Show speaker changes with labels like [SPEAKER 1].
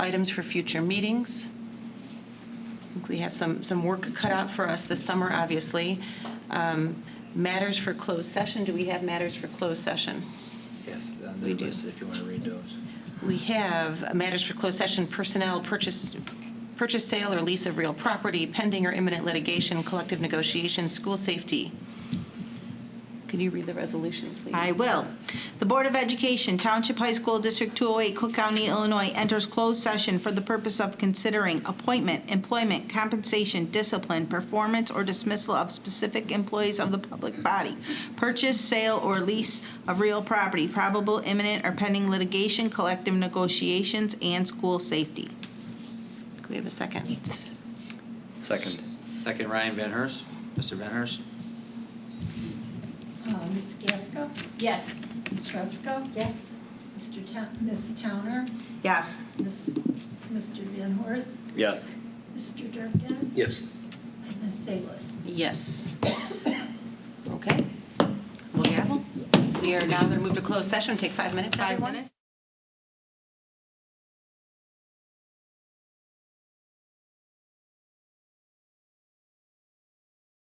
[SPEAKER 1] items for future meetings. I think We have some, some work cut out for us this summer, obviously. Um, Matters for closed session, do we have matters for closed session?
[SPEAKER 2] Yes, uh,
[SPEAKER 1] We
[SPEAKER 2] they're
[SPEAKER 1] do.
[SPEAKER 2] listed if you want to read those.
[SPEAKER 1] We have matters for closed session, personnel, purchase, purchase, sale, or lease of real property, pending or imminent litigation, collective negotiation, school safety. Can you read the resolution, please?
[SPEAKER 3] I will. The Board of Education, Township High School District 208, Cook County, Illinois, enters closed session for the purpose of considering appointment, employment, compensation, discipline, performance, or dismissal of specific employees of the public body, purchase, sale, or lease of real property, probable imminent or pending litigation, collective negotiations, and school safety.
[SPEAKER 1] Can we have a second?
[SPEAKER 4] Second.
[SPEAKER 2] Second, Ryan Van Hurst. Mr. Van Hurst?
[SPEAKER 5] Uh, Ms. Gasko? Yes. Ms. Ruska? Yes. Mr. Town, Ms. Towner?
[SPEAKER 3] Yes.
[SPEAKER 5] Ms., Mr. Van Horst?
[SPEAKER 4] Yes.
[SPEAKER 5] Mr. Durkin?
[SPEAKER 4] Yes.
[SPEAKER 5] And Ms. Salas?
[SPEAKER 1] Yes. Okay. Well, gavel. We are now going to move to closed session, take five minutes,
[SPEAKER 3] Five
[SPEAKER 1] everyone.
[SPEAKER 3] minutes.